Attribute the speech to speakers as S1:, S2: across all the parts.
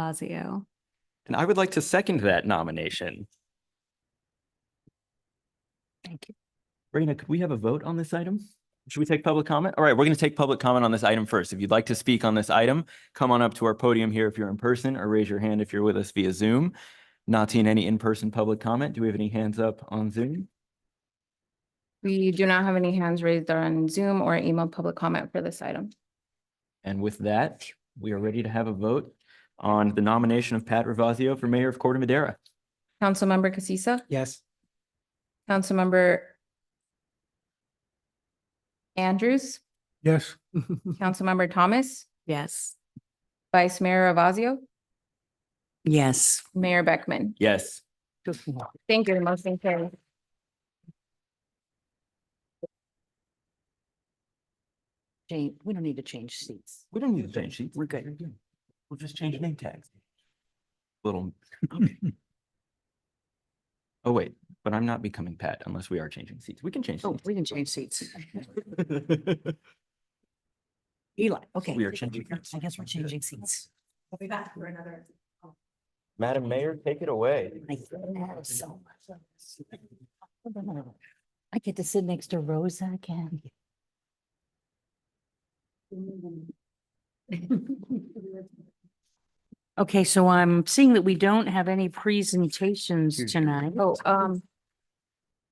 S1: Ravasio.
S2: And I would like to second that nomination.
S3: Thank you.
S2: Raina, could we have a vote on this item? Should we take public comment? All right, we're going to take public comment on this item first. If you'd like to speak on this item, come on up to our podium here if you're in person or raise your hand if you're with us via Zoom. Not seeing any in-person public comment. Do we have any hands up on Zoom?
S3: We do not have any hands raised on Zoom or email public comment for this item.
S2: And with that, we are ready to have a vote on the nomination of Pat Ravazio for mayor of Corte Madera.
S3: Councilmember Casissa,
S4: Yes.
S3: Councilmember Andrews,
S4: Yes.
S3: Councilmember Thomas,
S1: Yes.
S3: Vice Mayor Ravazio,
S5: Yes.
S3: Mayor Beckman.
S2: Yes.
S3: Thank you. The Motion carries.
S5: Jane, we don't need to change seats.
S2: We don't need to change sheets.
S5: We're good.
S2: We'll just change name tags. Little. Oh, wait, but I'm not becoming Pat unless we are changing seats. We can change.
S5: Oh,
S2: seats.
S5: we can change seats. Eli, okay.
S2: We are changing seats.
S5: I guess we're changing seats. We'll be back for another.
S2: Madam Mayor, take it away.
S5: I love so much. I get to sit next to Rosa again. Okay, so I'm seeing that we don't have any presentations
S2: Excuse me.
S5: tonight.
S3: Oh, um,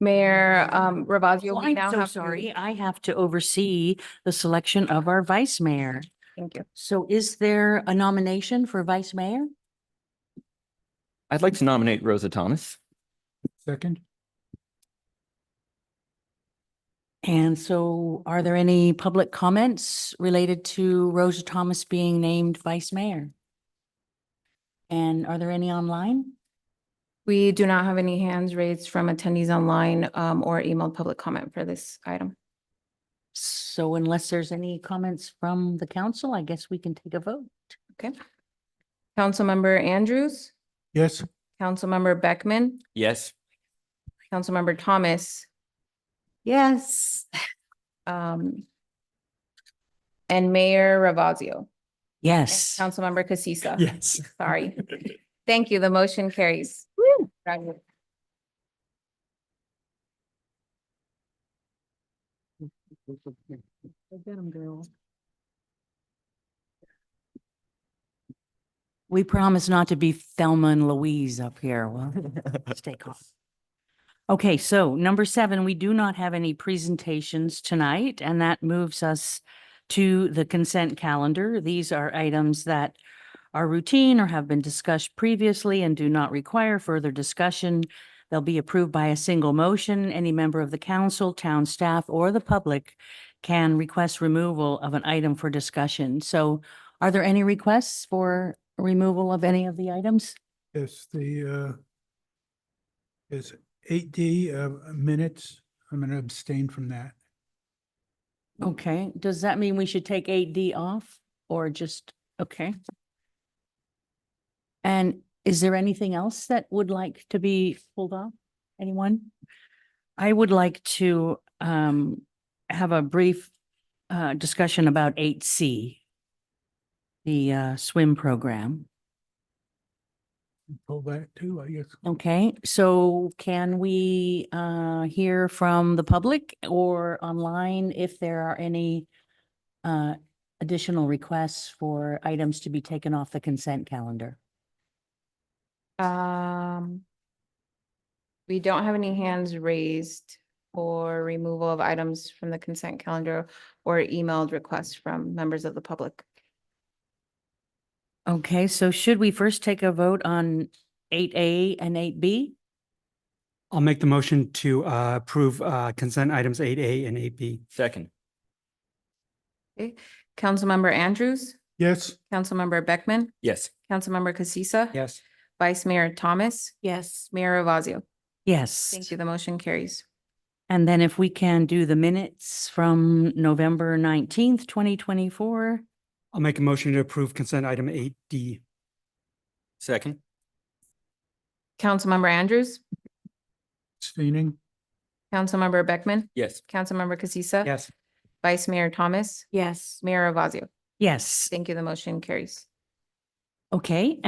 S3: Mayor, um, Ravazio,
S5: Well,
S3: we now
S5: Oh, I'm
S3: have.
S5: so
S3: to-
S5: sorry. I have to oversee the selection of our vice mayor.
S3: Thank you.
S5: So is there a nomination for vice mayor?
S2: I'd like to nominate Rosa Thomas.
S4: Second?
S5: And so are there any public comments related to Rosa Thomas being named vice mayor? And are there any online?
S3: We do not have any hands raised from attendees online, um, or emailed public comment for this item.
S5: So unless there's any comments from the council, I guess we can take a vote.
S3: Councilmember Andrews,
S4: Yes.
S3: Councilmember Beckman,
S2: Yes.
S3: Councilmember Thomas,
S5: Yes.
S3: um, and Mayor Ravazio. and
S5: Yes.
S3: Councilmember Casissa.
S4: Yes.
S3: Sorry. Thank you. The motion carries. Congratulations.
S5: We promise not to be Thelma and Louise up here. Well, stay calm. Okay, so number seven, we do not have any presentations tonight, and that moves us to the consent calendar. These are items that are routine or have been discussed previously and do not require further discussion. They'll be approved by a single motion. Any member of the council, town staff, or the public can request removal of an item for discussion. So are there any requests for removal of any of the items?
S4: Yes, the, uh, is eight D, uh, minutes. I'm going to abstain from that.
S5: Okay, does that mean we should take eight D off or just, okay? And is there anything else that would like to be pulled off? Anyone? I would like to um have a brief uh discussion about eight C. The uh swim program.
S4: Pull that too, I guess.
S5: Okay, so can we uh hear from the public or online if there are any uh additional requests for items to be taken off the consent calendar?
S3: Um, we don't have any hands raised for removal of items from the consent calendar or emailed requests from members of the public.
S5: Okay, so should we first take a vote on eight A and eight B?
S6: I'll make the motion to uh, approve uh, consent items eight A and eight B.
S2: Second.
S3: Councilmember Andrews,
S4: Yes.
S3: Councilmember Beckman,
S2: Yes.
S3: Councilmember Casissa.
S6: Yes.
S3: Vice Mayor Thomas,
S1: Yes.
S3: Mayor Ravazio.
S5: Yes.
S3: Thank you. The motion carries.
S5: And then if we can do the minutes from November nineteenth, twenty twenty-four.
S6: I'll make a motion to approve consent item eight D.
S2: Second.
S3: Councilmember Andrews,
S4: Abstaining?
S3: Councilmember Beckman,
S2: Yes.
S3: Councilmember Casissa.
S6: Yes.
S3: Vice Mayor Thomas,
S1: Yes.
S3: Mayor Ravazio.
S5: Yes,
S3: Thank you. The motion carries.
S5: okay,